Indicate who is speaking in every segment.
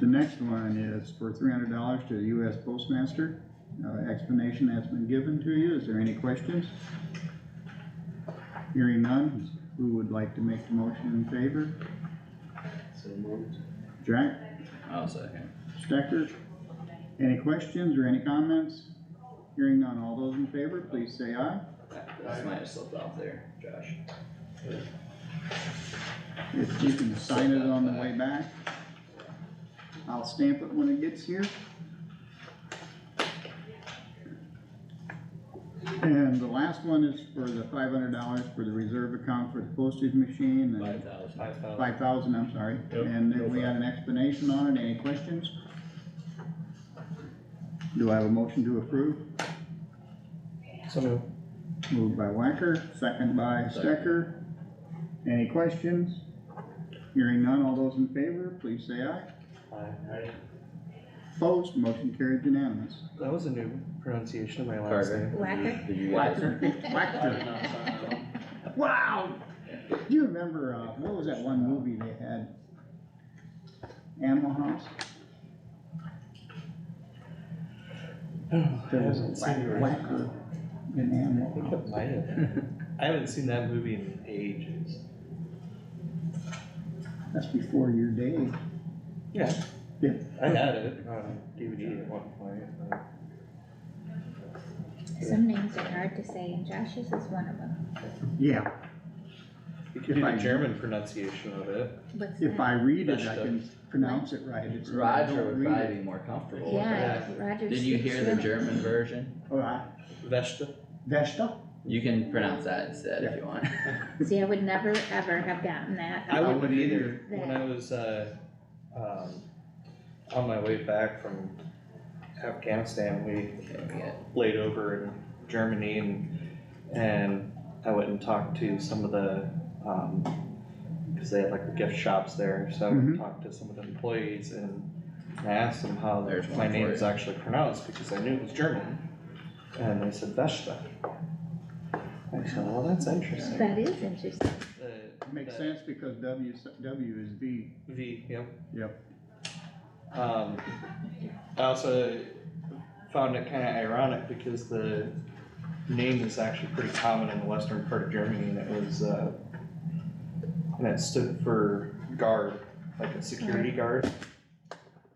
Speaker 1: The next one is for three hundred dollars to the US Postmaster. Uh, explanation that's been given to you. Is there any questions? Hearing none, who would like to make the motion in favor?
Speaker 2: So moved.
Speaker 1: Jack,
Speaker 3: I'll second.
Speaker 1: Stecker? Any questions or any comments? Hearing none, all those in favor, please say aye.
Speaker 3: This might have slipped off there, Josh.
Speaker 1: If you can sign it on the way back. I'll stamp it when it gets here. And the last one is for the five hundred dollars for the reserve account for the postage machine and
Speaker 3: Five thousand.
Speaker 2: Five thousand.
Speaker 1: five thousand, I'm sorry.
Speaker 4: Yep,
Speaker 1: And
Speaker 4: no
Speaker 1: then we had an explanation on it. Any questions? Do I have a motion to approve?
Speaker 2: So moved.
Speaker 1: Moved by Wacker, second by Stecker. Any questions? Hearing none, all those in favor, please say aye.
Speaker 2: Aye.
Speaker 1: Opposed, motion carried unanimous.
Speaker 2: That was a new pronunciation of my last
Speaker 3: Carter.
Speaker 2: name.
Speaker 3: did you-
Speaker 5: Whacker.
Speaker 3: Did you guys?
Speaker 1: Wacker, Wacker, wow! Do you remember, uh, what was that one movie they had? Animal House?
Speaker 2: Oh, I
Speaker 1: There was
Speaker 2: haven't
Speaker 1: a
Speaker 2: seen
Speaker 1: Wack-
Speaker 2: it.
Speaker 1: Wacker in
Speaker 2: I
Speaker 1: Animal
Speaker 2: think
Speaker 1: House.
Speaker 2: it might have. I haven't seen that movie in ages.
Speaker 1: That's before your day.
Speaker 2: Yeah.
Speaker 1: Yeah.
Speaker 2: I had it on DVD at one point. but-
Speaker 5: Some names are hard to say and Josh's is one of them.
Speaker 1: Yeah,
Speaker 2: You could
Speaker 1: If
Speaker 2: do
Speaker 1: I-
Speaker 2: the German pronunciation of it.
Speaker 5: What's
Speaker 1: if
Speaker 5: that?
Speaker 1: I read it, I
Speaker 2: That's the-
Speaker 1: can pronounce it right. It's- I
Speaker 3: Roger
Speaker 1: don't
Speaker 3: would
Speaker 1: read it.
Speaker 3: probably be more comfortable with that.
Speaker 5: Yeah, Roger.
Speaker 3: Did you hear the
Speaker 5: Schmidt.
Speaker 3: German version?
Speaker 1: All right,
Speaker 2: Vesta.
Speaker 1: Vesta?
Speaker 3: You can pronounce that instead if you want.
Speaker 5: See, I would never, ever have gotten that.
Speaker 2: I
Speaker 1: would-
Speaker 2: wouldn't either.
Speaker 5: either.
Speaker 2: When I was, uh, um, on my way back from Afghanistan, we
Speaker 3: Okay, we got-
Speaker 2: laid over in Germany and, and I went and talked to some of the, um, cause they had like the gift shops there, so I went and talked to some of the employees and I asked them how
Speaker 3: There's
Speaker 2: my
Speaker 3: one for
Speaker 2: name is
Speaker 3: you.
Speaker 2: actually pronounced, because I knew it was German. And they said Vesta. I said, well, that's interesting.
Speaker 5: That is interesting.
Speaker 2: The-
Speaker 1: Makes
Speaker 2: the
Speaker 1: sense because W, s- W is V.
Speaker 2: V, yep.
Speaker 1: Yep.
Speaker 2: Um, I also found it kinda ironic because the name is actually pretty common in the western part of Germany and it was, uh, and it stood for guard, like a security guard.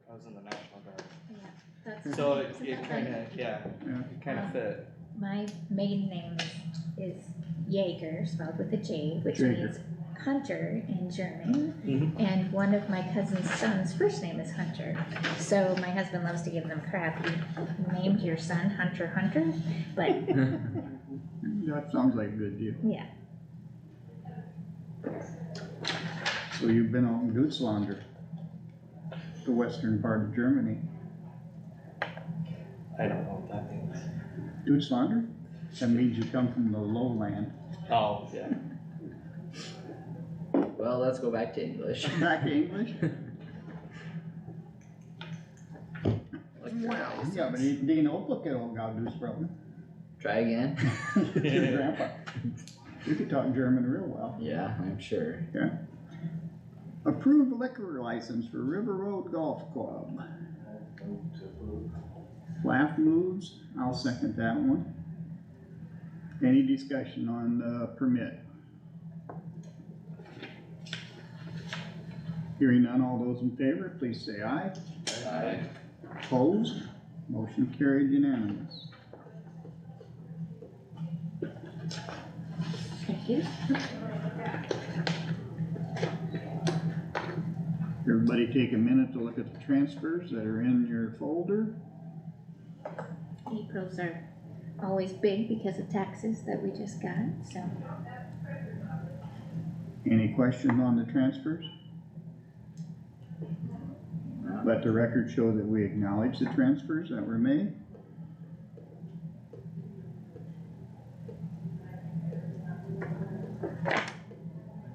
Speaker 2: I was in the National Guard,
Speaker 5: Yeah, that's-
Speaker 2: so it,
Speaker 5: isn't
Speaker 2: it
Speaker 5: that like-
Speaker 2: kinda, yeah,
Speaker 1: Yeah.
Speaker 2: it kinda fit.
Speaker 5: My maiden name is Jaeger, spelled with a J, which
Speaker 1: Jaeger.
Speaker 5: means hunter in German. And one of my cousin's son's first name is Hunter. So my husband loves to give them crap. You named your son Hunter Hunter, but
Speaker 1: That sounds like a good deal.
Speaker 5: yeah,
Speaker 1: So you've been out in Gooslander, the western part of Germany.
Speaker 2: I don't know what that means.
Speaker 1: Gooslander? That means you come from the lowland.
Speaker 2: Oh, yeah.
Speaker 3: Well, let's go back to English.
Speaker 1: Back to English?
Speaker 3: Look for
Speaker 1: Wow.
Speaker 3: license.
Speaker 1: Yeah, but he- they know what they all got to do is problem.
Speaker 3: Try again?
Speaker 1: Your grandpa. You could talk German real well.
Speaker 3: Yeah, I'm sure.
Speaker 1: Approved liquor license for River Road Golf Club. Laugh moves, I'll second that one. Any discussion on the permit? Hearing none, all those in favor, please say aye.
Speaker 3: Aye.
Speaker 1: Opposed, motion carried unanimous.
Speaker 5: thank you.
Speaker 1: Everybody take a minute to look at the transfers that are in your folder.
Speaker 5: April's are always big because of taxes that we just got, so.
Speaker 1: Any questions on the transfers? Let the record show that we acknowledge the transfers that were made.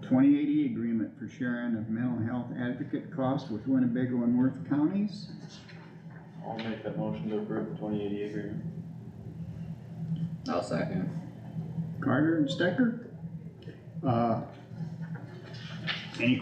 Speaker 1: Twenty eighty agreement for sharing of mental health advocate costs with Winnebago and Worth counties.
Speaker 6: I'll make that motion to approve the twenty eighty agreement.
Speaker 3: I'll second.
Speaker 1: Carter and Stecker? Uh, Any